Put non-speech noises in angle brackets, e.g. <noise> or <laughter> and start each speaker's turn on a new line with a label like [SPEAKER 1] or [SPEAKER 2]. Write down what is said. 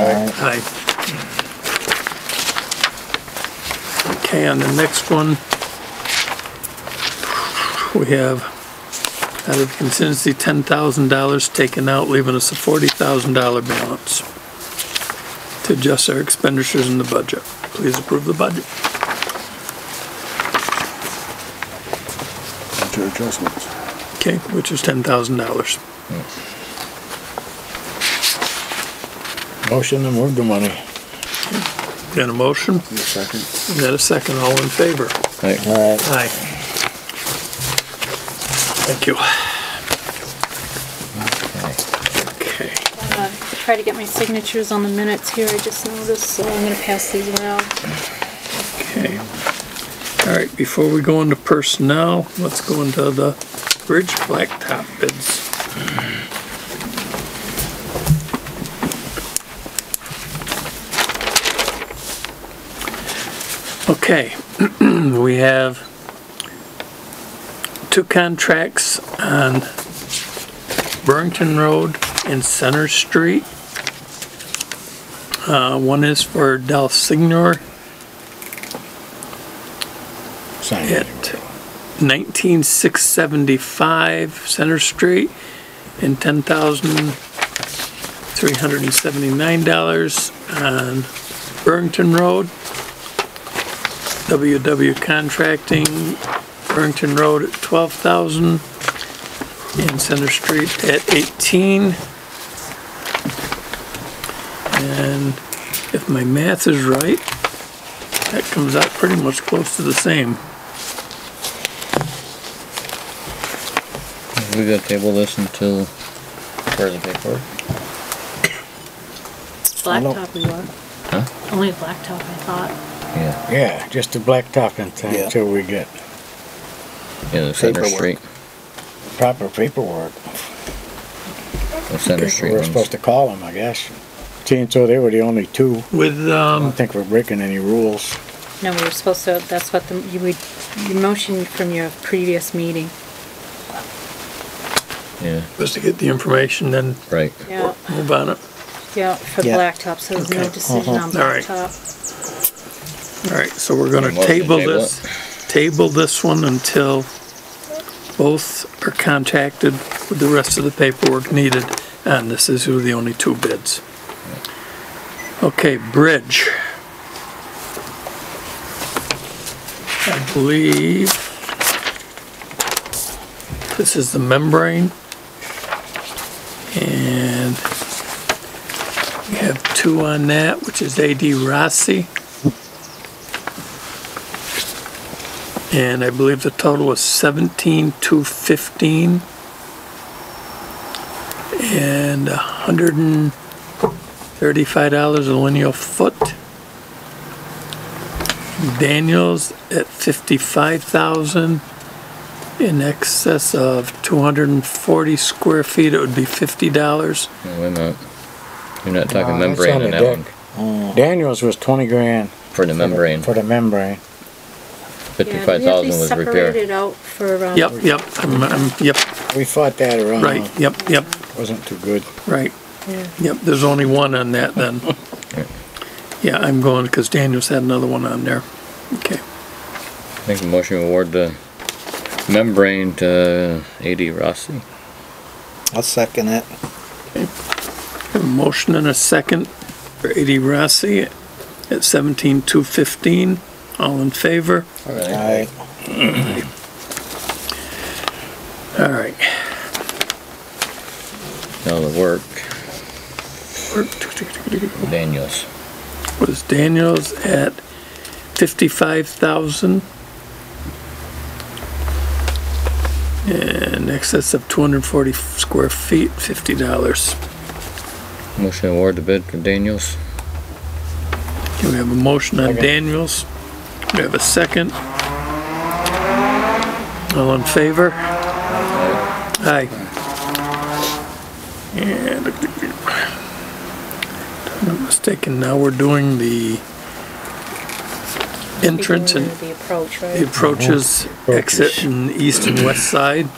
[SPEAKER 1] Aye. Okay, and the next one, we have out of contingency, ten thousand dollars taken out, leaving us a forty thousand dollar balance to adjust our expenditures in the budget. Please approve the budget.
[SPEAKER 2] Budget adjustments.
[SPEAKER 1] Okay, which is ten thousand dollars.
[SPEAKER 3] Motion to move the money.
[SPEAKER 1] Got a motion?
[SPEAKER 2] Need a second?
[SPEAKER 1] Is that a second? All in favor?
[SPEAKER 3] All right,
[SPEAKER 1] Aye. Thank you. Okay.
[SPEAKER 4] Uh, Try to get my signatures on the minutes here, I just noticed, so I'm gonna pass these around.
[SPEAKER 1] Okay. All right, before we go into personnel, let's go into the bridge blacktop bids. Okay, <clears throat> we have two contracts on Burrington Road and Center Street. Uh, one is for Del Signor
[SPEAKER 3] sign
[SPEAKER 1] at
[SPEAKER 3] it.
[SPEAKER 1] 19675 Center Street and $10,379 on Burrington Road. WW Contracting, Burrington Road at 12,000 and Center Street at 18. And if my math is right, that comes out pretty much close to the same.
[SPEAKER 5] We gotta table this until further paperwork.
[SPEAKER 4] Blacktop we were. Only blacktop, I thought.
[SPEAKER 5] Yeah,
[SPEAKER 3] Yeah, just the blacktop and thing
[SPEAKER 2] Yeah.
[SPEAKER 3] until we get
[SPEAKER 5] yeah, the Center
[SPEAKER 2] Paperwork.
[SPEAKER 5] Street,
[SPEAKER 3] proper paperwork.
[SPEAKER 5] the Center Street
[SPEAKER 3] We're supposed
[SPEAKER 5] ones.
[SPEAKER 3] to call them, I guess. Seeing so they were the only two,
[SPEAKER 1] With,
[SPEAKER 3] I
[SPEAKER 1] um,
[SPEAKER 3] don't think we're breaking any rules.
[SPEAKER 4] No, we were supposed to, that's what the, you would, your motion from your previous meeting.
[SPEAKER 5] Yeah,
[SPEAKER 1] was to get the information, then
[SPEAKER 5] right.
[SPEAKER 4] Yeah,
[SPEAKER 1] move on it.
[SPEAKER 4] yeah, for
[SPEAKER 3] Yeah.
[SPEAKER 4] blacktop, so there's no
[SPEAKER 1] Okay.
[SPEAKER 4] decision
[SPEAKER 5] Uh-huh.
[SPEAKER 4] on
[SPEAKER 1] All right.
[SPEAKER 4] blacktop.
[SPEAKER 1] All right, so we're gonna
[SPEAKER 5] Motion to
[SPEAKER 1] table
[SPEAKER 5] table
[SPEAKER 1] this, table this one until both are contacted with the rest of the paperwork needed, and this is who the only two bids. Okay, bridge. I believe this is the membrane. And we have two on that, which is AD Rossi. And I believe the total was seventeen two fifteen. And a hundred and thirty-five dollars a linear foot. Daniels at fifty-five thousand. In excess of two hundred and forty square feet, it would be fifty dollars.
[SPEAKER 5] No, we're not, you're not talking
[SPEAKER 3] No, Uh, that's
[SPEAKER 5] membrane
[SPEAKER 3] on the
[SPEAKER 5] on that one,
[SPEAKER 3] deck. Uh, Daniels was twenty grand.
[SPEAKER 5] for the membrane,
[SPEAKER 3] For the membrane.
[SPEAKER 5] fifty-five thousand was
[SPEAKER 4] Yeah, we have these
[SPEAKER 5] repair.
[SPEAKER 4] separated out for, um.
[SPEAKER 1] Yep, yep, I'm, I'm, yep,
[SPEAKER 3] We fought that around.
[SPEAKER 1] right, yep, yep,
[SPEAKER 3] Wasn't too good.
[SPEAKER 1] right.
[SPEAKER 4] yeah.
[SPEAKER 1] Yep, there's only one on that then. Yeah, I'm going, because Daniels had another one on there. Okay,
[SPEAKER 5] Make a motion to award the membrane to AD Rossi.
[SPEAKER 2] I'll second it.
[SPEAKER 1] a motion and a second for AD Rossi at seventeen two fifteen. All in favor?
[SPEAKER 3] Aye.
[SPEAKER 1] All right.
[SPEAKER 5] Now the work, Daniels.
[SPEAKER 1] Was Daniels at fifty-five thousand? And excess of two hundred and forty square feet, fifty dollars.
[SPEAKER 5] Motion to award the bid for Daniels.
[SPEAKER 1] We have a motion on
[SPEAKER 3] Second.
[SPEAKER 1] Daniels. We have a second. All in favor? Aye. And if I'm not mistaken, now we're doing the entrance and
[SPEAKER 4] Beginning of The approach,
[SPEAKER 1] the
[SPEAKER 4] right?
[SPEAKER 1] approaches, exit and east and west side.